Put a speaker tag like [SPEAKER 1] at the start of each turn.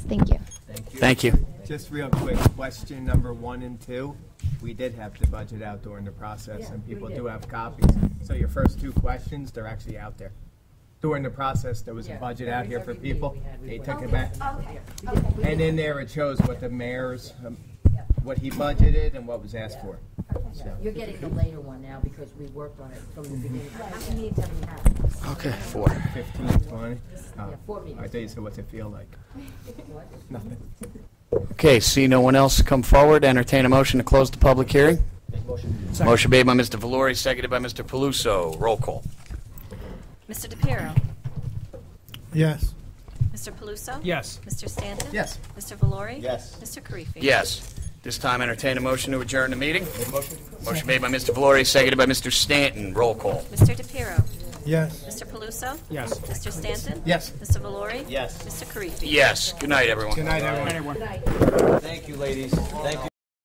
[SPEAKER 1] Thank you.
[SPEAKER 2] Thank you.
[SPEAKER 3] Just real quick, question number one and two, we did have to budget out during the process, and people do have copies. So your first two questions, they're actually out there. During the process, there was a budget out here for people, they took it back. And in there, it shows what the mayor's, um, what he budgeted and what was asked for.
[SPEAKER 4] You're getting the later one now because we worked on it from
[SPEAKER 3] Mm-hmm.
[SPEAKER 4] the beginning. How many meetings have we had?
[SPEAKER 2] Okay, four.
[SPEAKER 3] Fifteen, twenty. Uh,
[SPEAKER 4] Yeah, four
[SPEAKER 3] I
[SPEAKER 4] meetings.
[SPEAKER 3] thought you said, what's it feel like?
[SPEAKER 4] What?
[SPEAKER 3] Nothing.
[SPEAKER 2] Okay, see no one else come forward, entertain a motion to close the public hearing. Motion made by Mr. Valori, seconded by Mr. Paluso. Roll call.
[SPEAKER 5] Mr. DePiero?
[SPEAKER 6] Yes.
[SPEAKER 5] Mr. Paluso?
[SPEAKER 6] Yes.
[SPEAKER 5] Mr. Stanton?
[SPEAKER 3] Yes.
[SPEAKER 5] Mr. Valori?
[SPEAKER 3] Yes.
[SPEAKER 5] Mr. Karifi?
[SPEAKER 2] Yes. This time entertain a motion to adjourn the meeting. Motion made by Mr. Valori, seconded by Mr. Stanton. Roll call.
[SPEAKER 5] Mr. DePiero?
[SPEAKER 6] Yes.
[SPEAKER 5] Mr. Paluso?
[SPEAKER 6] Yes.
[SPEAKER 5] Mr. Stanton?
[SPEAKER 3] Yes.
[SPEAKER 5] Mr. Valori?
[SPEAKER 3] Yes.
[SPEAKER 5] Mr. Karifi?
[SPEAKER 2] Yes. Good night, everyone.
[SPEAKER 3] Good night, everyone. Thank you, ladies. Thank you.